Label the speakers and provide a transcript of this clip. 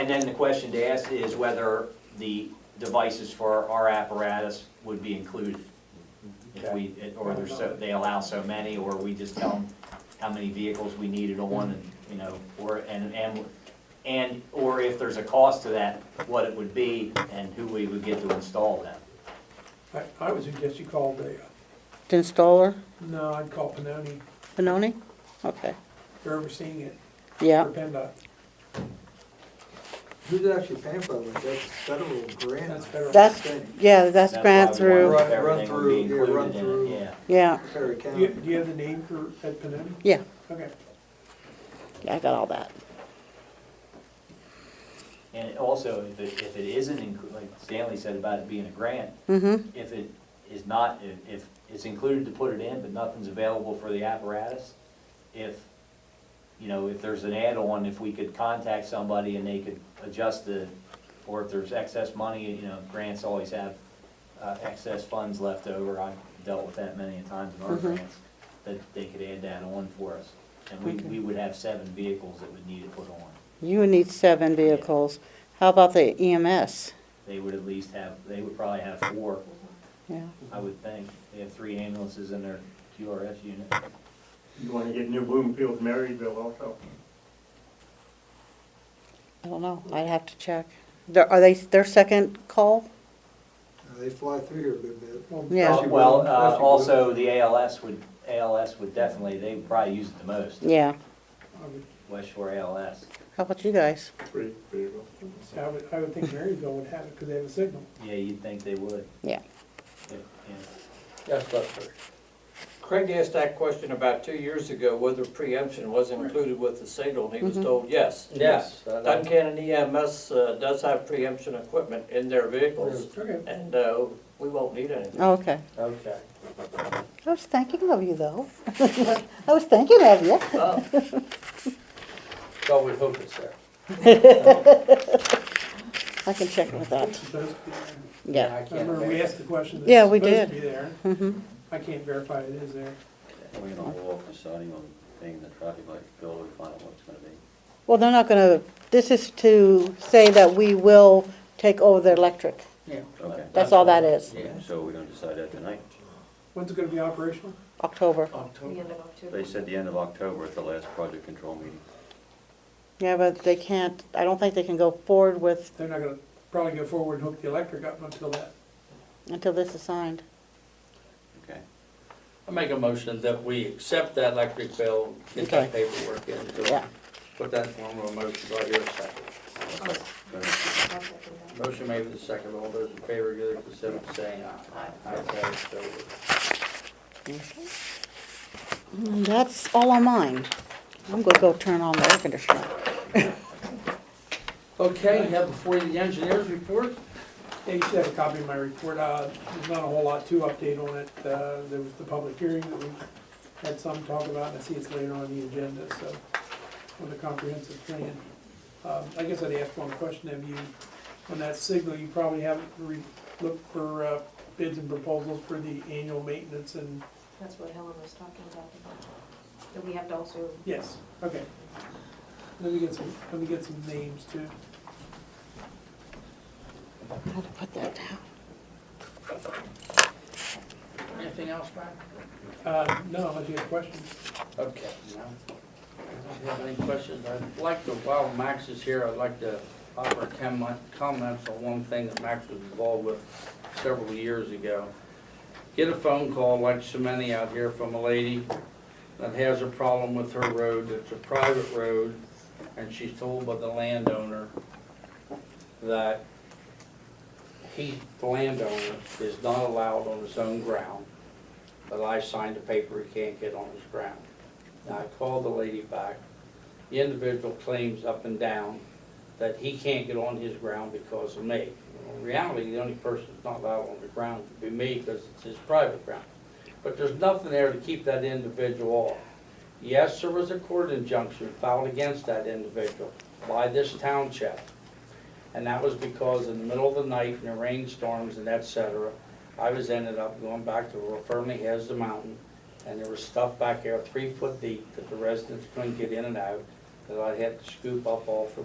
Speaker 1: And then the question to ask is whether the devices for our apparatus would be included. If we, or there's so, they allow so many, or we just tell them how many vehicles we needed on, and, you know, or, and, and, and, or if there's a cost to that, what it would be, and who we would get to install them.
Speaker 2: I, I would suggest you call the, uh,
Speaker 3: The installer,
Speaker 2: no, I'd call Panoni,
Speaker 3: Benoni? Okay,
Speaker 2: they're overseeing it,
Speaker 3: yeah.
Speaker 2: or PennDOT,
Speaker 4: Who's actually paying for that? That's federal grant.
Speaker 2: that's federal.
Speaker 3: That's,
Speaker 4: Okay.
Speaker 3: yeah, that's
Speaker 1: why
Speaker 3: grant
Speaker 1: we wanted
Speaker 3: through,
Speaker 4: Run- run
Speaker 1: everything would be
Speaker 4: through, yeah, run
Speaker 1: included in it,
Speaker 4: through.
Speaker 1: Yeah,
Speaker 3: yeah,
Speaker 4: Perry
Speaker 2: Do you,
Speaker 4: County.
Speaker 2: do you have the name for, at Panoni?
Speaker 3: yeah,
Speaker 2: Okay,
Speaker 3: yeah, I got all that.
Speaker 1: and it also, if it, if it isn't, inclu- like Stanley said about it being a grant,
Speaker 3: Mm-hmm,
Speaker 1: if it is not, if- if it's included to put it in, but nothing's available for the apparatus, if, you know, if there's an add-on, if we could contact somebody and they could adjust the, or if there's excess money, you know, grants always have uh, excess funds left over, I've dealt with that many a times in our
Speaker 3: Mhm.
Speaker 1: grants, that they could add that on for us. And we,
Speaker 3: Okay.
Speaker 1: we would have seven vehicles that would need it put on.
Speaker 3: you would need seven vehicles. How about the E EMS?
Speaker 1: They would at least have, they would probably have four,
Speaker 3: Yeah,
Speaker 1: I would think. They have three ambulances in their QRS unit.
Speaker 5: You wanna get New Bloomfield, Maryville also.
Speaker 3: I don't know, I'd have to check. They're- Are they, their second call?
Speaker 4: Uh, They fly through here a good bit.
Speaker 2: well,
Speaker 3: Yeah.
Speaker 1: Uh, Well, uh, also, the ALS would, ALS would definitely, they would probably use it the most,
Speaker 3: Yeah,
Speaker 2: I would,
Speaker 1: West Shore ALS.
Speaker 3: how about you guys?
Speaker 5: Three vehicles.
Speaker 2: I would, I would think Maryville would have it, because they have a signal.
Speaker 1: Yeah, you'd think they would.
Speaker 3: Yeah.
Speaker 1: Yeah, yeah.
Speaker 6: Yes, Lester. Craig asked that question about two years ago, whether preemption was included with the signal, and he was
Speaker 3: Mhm.
Speaker 6: told yes.
Speaker 7: Yes, and I-
Speaker 6: Duncan and EMS uh, does have preemption equipment in their vehicles,
Speaker 2: Okay,
Speaker 6: and uh, we won't need anything.
Speaker 3: Oh, Okay,
Speaker 7: okay.
Speaker 3: I was thinking of you though. I was thinking of you.
Speaker 6: Oh,
Speaker 7: So we hope it's there.
Speaker 3: I can check with
Speaker 2: it's
Speaker 3: that,
Speaker 2: supposed to be there.
Speaker 3: yeah.
Speaker 7: I can't
Speaker 2: Remember, we
Speaker 7: imagine.
Speaker 2: asked the question,
Speaker 3: Yeah,
Speaker 2: that
Speaker 3: we
Speaker 2: it's supposed to be
Speaker 3: did.
Speaker 2: there,
Speaker 3: Mm-hmm,
Speaker 2: I can't verify it is there.
Speaker 8: We're gonna walk the siding on being the traffic light bill, we find out what it's gonna be.
Speaker 3: well, they're not gonna, this is to say that we will take over their electric.
Speaker 8: Okay,
Speaker 3: That's all that is,
Speaker 7: Yeah.
Speaker 8: so we're gonna decide that tonight.
Speaker 2: When's it gonna be operational?
Speaker 3: October.
Speaker 8: They said the end of October at the last project control meeting.
Speaker 3: Yeah, but they can't, I don't think they can go forward with,
Speaker 2: They're not gonna probably go forward and hook the electric up until that.
Speaker 3: until this is signed.
Speaker 8: Okay,
Speaker 7: I make a motion that we accept that electric bill, get that paperwork in,
Speaker 3: Yeah.
Speaker 7: put that in form of a motion, do I hear a second? Motion made with a second, all those in favor, give their consent by saying aye. Aye. Aye, so ordered.
Speaker 3: And That's all on mine. I'm gonna go turn on the air conditioner.
Speaker 7: Okay, now before you, the engineers report,
Speaker 2: Yeah, you should have a copy of my report. Uh, There's not a whole lot to update on it. Uh, There was the public hearing that we had some talk about, and I see it's later on the agenda, so, on the comprehensive plan. Um, I guess I'd ask one question of you. On that signal, you probably haven't re- looked for uh, bids and proposals for the annual maintenance and,
Speaker 9: That's what Helen was talking about, that we have to also
Speaker 2: yes, okay. Let me get some, let me get some names too.
Speaker 3: I had to put that down.
Speaker 7: anything else, Brian?
Speaker 2: Uh, No, unless you have questions.
Speaker 7: Okay. no. I don't have any questions. I'd like to, while Max is here, I'd like to offer com- comments on one thing that Max was involved with several years ago. Get a phone call like so many out here from a lady that has a problem with her road. It's a private road and she's told by the landowner that he, the landowner, is not allowed on his own ground. But I signed a paper he can't get on his ground. Now, I called the lady back. The individual claims up and down that he can't get on his ground because of me. In reality, the only person that's not allowed on the ground would be me because it's his private ground. But there's nothing there to keep that individual off. Yes, there was a court injunction filed against that individual by this township. And that was because in the middle of the night, in the rainstorms and et cetera, I was ended up going back to where firmly has the mountain, and there was stuff back there three foot deep that the residents couldn't get in and out, that I had to scoop up off the